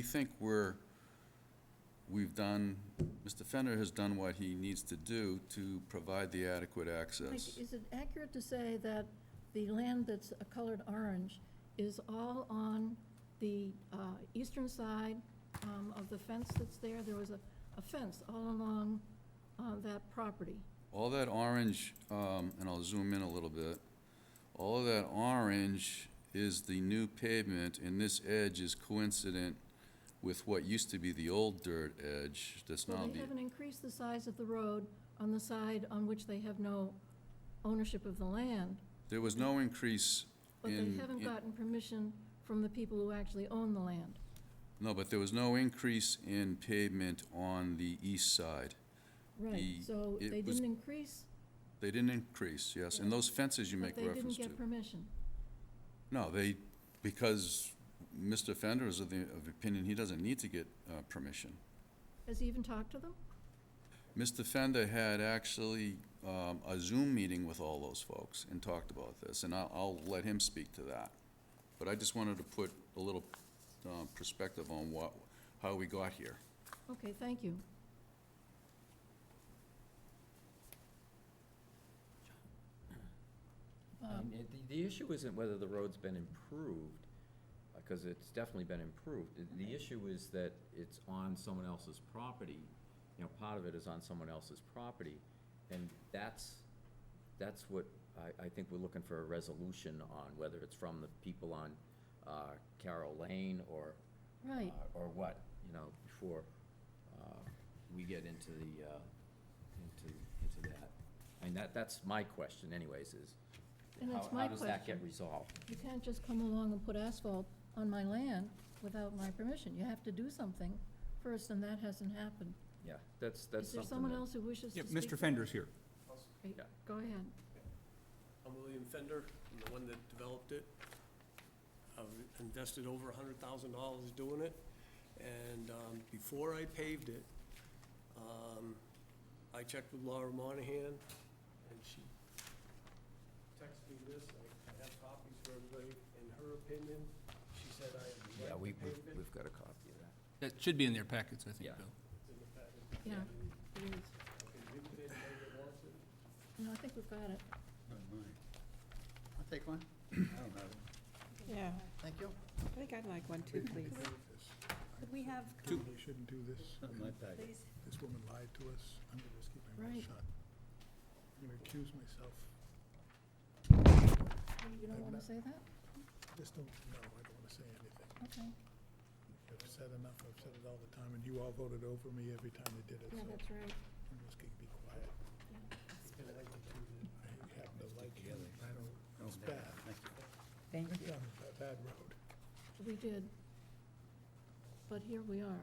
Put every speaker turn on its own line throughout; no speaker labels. We think we're, we've done, Mr. Fender has done what he needs to do to provide the adequate
Mike,
access.
is it accurate to say that the land that's a colored orange is all on the uh, eastern side um, of the fence that's there? There was a a fence all along uh, that property.
All that orange, um, and I'll zoom in a little bit, all of that orange is the new pavement, and this edge is coincident with what used to be the old dirt edge that's now
Well, they
the,
haven't increased the size of the road on the side on which they have no ownership of the land,
there was no increase
but they
in-
haven't
in-
gotten permission from the people who actually own the land.
No, but there was no increase in pavement on the east side.
Right,
The-
so
it
they
was-
didn't increase,
They didn't increase, yes, and those fences you
but
make
they didn't
reference to.
get permission.
No, they, because Mr. Fender is of the, of opinion, he doesn't need to get, uh, permission.
Has he even talked to them?
Mr. Fender had actually, um, a Zoom meeting with all those folks and talked about this, and I'll, I'll let him speak to that. But I just wanted to put a little, um, perspective on what, how we got here.
Okay, thank you.
I
Um,
mean, it- The, the issue isn't whether the road's been improved, because it's definitely been improved. The- The issue is that it's on someone else's property. You know, part of it is on someone else's property, and that's, that's what I, I think we're looking for a resolution on, whether it's from the people on, uh, Carroll Lane or,
Right,
uh, or what, you know, before uh, we get into the, uh, into, into that. I mean, that, that's my question anyways, is
And
how,
that's my
how does that get
question.
resolved?
you can't just come along and put asphalt on my land without my permission. You have to do something first, and that hasn't happened.
Yeah, that's,
Is
that's
there
something
someone
that-
else who wishes
Yeah,
to speak?
Mr. Fender's here.
Great,
Yeah.
Go ahead.
I'm William Fender, I'm the one that developed it. I've invested over hundred thousand dollars doing it, and, um, before I paved it, um, I checked with Laura Monahan, and she texted me this, I I have copies for everybody, in her opinion, she said I
Yeah,
have the
we,
right to
we've,
pave it.
we've got a copy of that.
That should be in their packets, I think,
Yeah.
Bill.
It's in the packet.
Yeah. Please.
I can give it to anybody that wants it.
No, I think we've got it.
I'll take one. I don't have it.
Yeah,
Thank you.
I think I'd like one too, please.
Could we have,
Two. They shouldn't do this.
Not in my packet.
please,
This woman lied to us. I'm gonna just keep my mouth
Right.
shut. I'm gonna accuse myself.
You don't want to say that?
Just don't, no, I don't wanna say anything.
Okay.
I've said enough. I've said it all the time, and you all voted over me every time you did it,
Yeah,
so
that's right.
I'm just gonna be quiet.
I like it too, that-
I happen to like him. I don't, it's bad.
Thank
We've
you.
done a bad road.
We did. But here we are.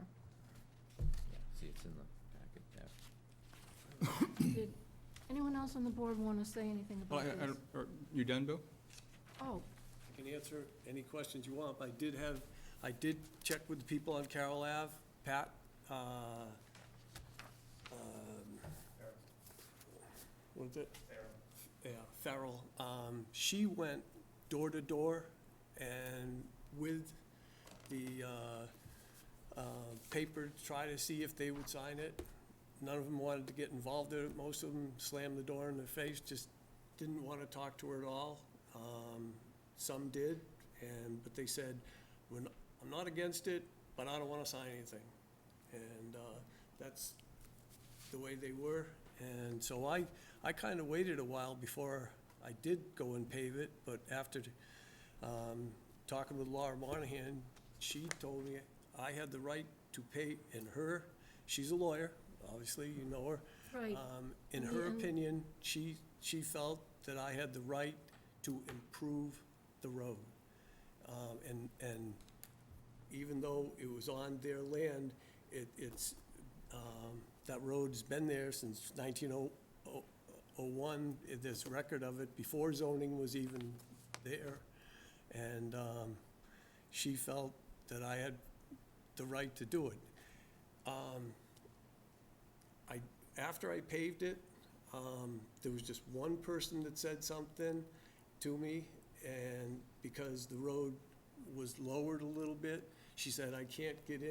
Yeah, see, it's in the packet, yeah.
Did anyone else on the board want to say anything
Well,
about
I- I
this?
don't- are you done, Bill?
Oh,
I can answer any questions you want, but I did have, I did check with the people on Carroll Ave, Pat, uh, um, what is it? Yeah, Farrell. Um, She went door to door and with the uh, uh, paper, to try to see if they would sign it. None of them wanted to get involved in it. Most of them slammed the door in their face, just didn't want to talk to her at all. Um, Some did, and, but they said, "We're not- I'm not against it, but I don't want to sign anything. And uh, that's the way they were. And so I, I kind of waited a while before I did go and pave it, but after um, talking with Laura Monahan, she told me I had the right to pay, in her, she's a lawyer, obviously, you know her.
right.
Uh,
Um, In
In the
her
end-
opinion, she, she felt that I had the right to improve the road. Um, And, and even though it was on their land, it, it's, um, that road's been there since oh, 1901. There's record of it before zoning was even there. And um, she felt that I had the right to do it. Um, I, after I paved it, um, there was just one person that said something to me, and because the road was lowered a little bit, she said, I can't get in.